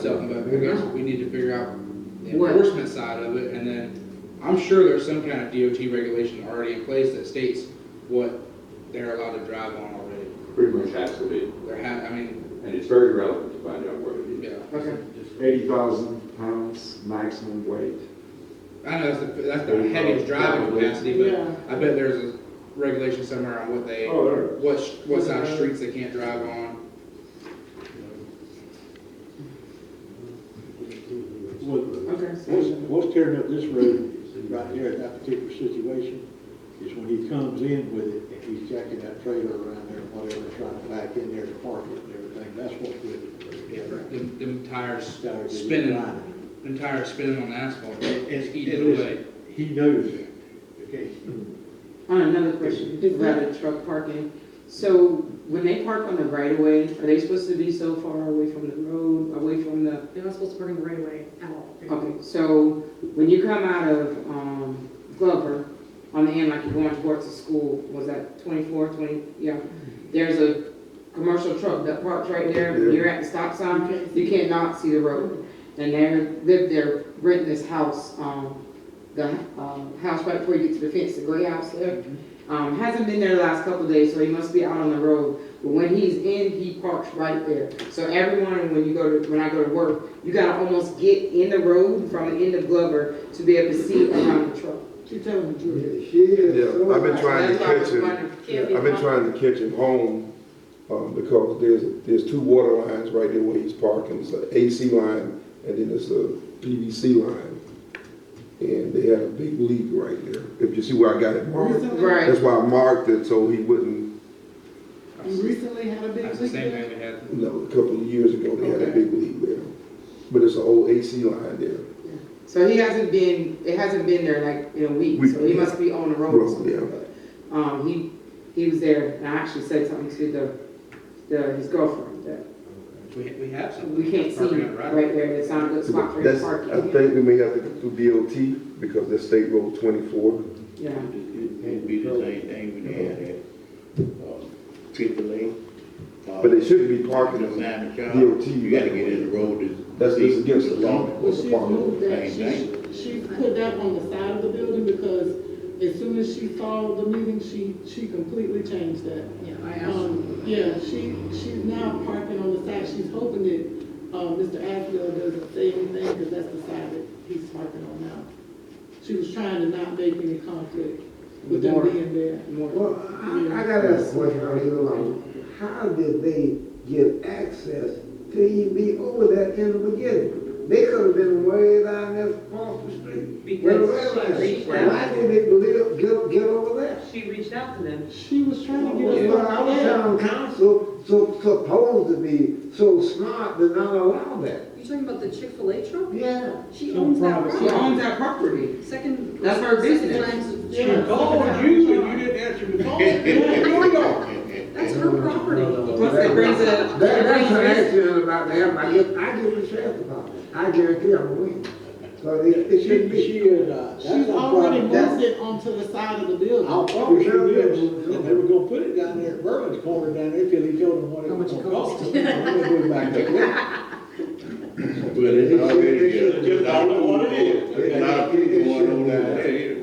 something, but I guess we need to figure out the What? enforcement side of it, and then, I'm sure there's some kind of DOT regulation already in place that states what they're allowed to drive on already. Pretty much has to be, There ha I mean, and it's very relevant to find out what it is. yeah, Okay. Eighty thousand pounds maximum weight. I know that's the, that's the heaviest driving capacity, but Yeah. I bet there's a regulation somewhere on what they, Oh, there. what, sh- what side of streets they can't drive on. What- Okay. What's, what's tearing up this road right here in that particular situation is when he comes in with it and he's jacking that trailer around there and whatever, trying to back in there to park it and everything, that's what's with it. Them, them tires Started spinning, grinding. them tires spinning on asphalt, And- it's and- eating away. He knows that, okay? On another question, about the truck parking, so when they park on the right of way, are they supposed to be so far away from the road, away from the? They're not supposed to park in the right of way at all. Okay, so when you come out of, um, Glover, on the end, like you're going towards the school, was that 24, 20? yeah? There's a commercial truck that parks right there, Yeah. you're at the stop sign, you cannot see the road. And they're, live there, renting this house, um, the, um, house right before you get to the fence, the gray house there. Um, hasn't been there the last couple days, so he must be out on the road. But when he's in, he parks right there. So every morning when you go to, when I go to work, you gotta almost get in the road from the end of Glover to be able to see around the truck. She telling the truth. She is. Yeah, I've been trying to That's why I was catch him, wondering. I've been trying to catch him home, um, because there's, there's two water lines right there where he's parking, it's an AC line, and then it's a PVC line. And they had a big leak right there, if you see where I got it marked, Right, that's why I marked it, so he wouldn't, recently had a That's the same thing we had. you know, a couple of years ago, they had a big leak there. But it's an old AC line there, so he hasn't been, it hasn't been there like in a week, Week, so he yeah. must be on the road. or Road, something. yeah. But, Um, he, he was there, and I actually said something to the, the, his girlfriend, that We, we have some. we can't see Parking on the right. right there, it's not a good spot for him That's, I parking. think we may have to go through DOT, because that's State Road twenty-four. Yeah, It'd be the same thing we had at, um, Triple A. uh, But they shouldn't be parking The on man, the job, DOT. you gotta get in the road to. That's, that's against the law. Well, of the She moved park. that, Same thing. she, she put that on the side of the building because as soon as she saw the meeting, she, she completely changed that. Yeah, I Um, yeah, she, she's now parking on the side, she's hoping that, uh, Mr. Asbill doesn't say anything because that's the side that he's parking on now. She was trying to not make any conflict with them More. being there. more, Well, I, I gotta ask a question right here alone. How did they get access to even be over there in the beginning? They could have been way down there across the street. where the Because red she light is. reached Why out, did they live, get, get over there? she reached out to them. She was trying to get us Well, back our out. town council, so, supposed to be so smart to not allow that. You talking about the Chick-fil-A truck? Yeah. She No owns that problem. she road. owns that property, Second. That's her second business. time- She Oh, you, and you didn't answer the call. That's her property. plus it brings a, That, it that's an brings accident about them, I get, I get the sheriff about it, I guarantee I'm gonna win. So it, it She, shouldn't be. she is, uh, that's She's a already problem. That's- moved it onto the side of the building. I'll probably show you, and they were gonna put it down there at Berlin's corner down there till he told them what it was gonna cost. I'm gonna go back there. it's already. It's just all in one area. It's not going on down there.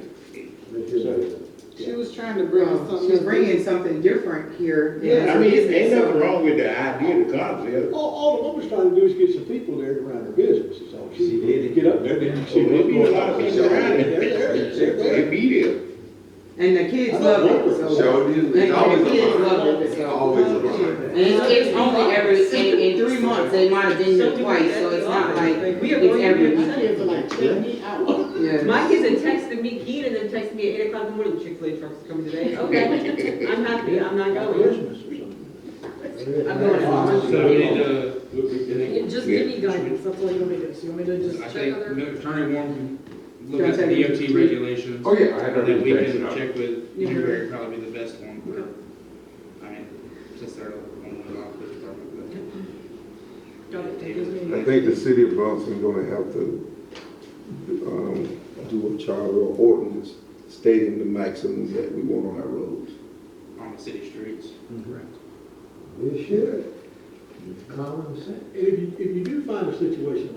She was trying to bring us um, something. she's bringing something different here. I mean, it ain't nothing wrong with the idea, the concept. All, all the woman's trying to do is get some people there to run their business, is all she did. Get up there, then So she there'll be a lot of people around They're it. there, they're They there. be there. And the kids I love don't it, know. so. So it is, it's always And the kids a love it, It's so. always a line. And it's, it's only every, in, in three months, they might have been there twice, so it's not like, We are it's going every to. My kids are like, check me out. yeah. My kids had texted me, Keenan had texted me at eight o'clock in the morning, the Chick-fil-A truck's coming today. Okay, I'm happy, I'm not going. Business or something. I'm going. So we need to, we- we- And Just give me guidance, that's all you want me to do. So you want me I to just check think other? Attorney Warren can look at the DOT regulations. Oh, yeah, I have And then we everything can figured out. check with Yeah. Newberry, would probably be the best one. I mean, since they're on the office department, Got it. Give me- I think the city of Bronson gonna have to, um, do a charter or ordinance stating the maximum that we want um, on our roads. but on the city streets. It should. common sense. If you, if you do find a situation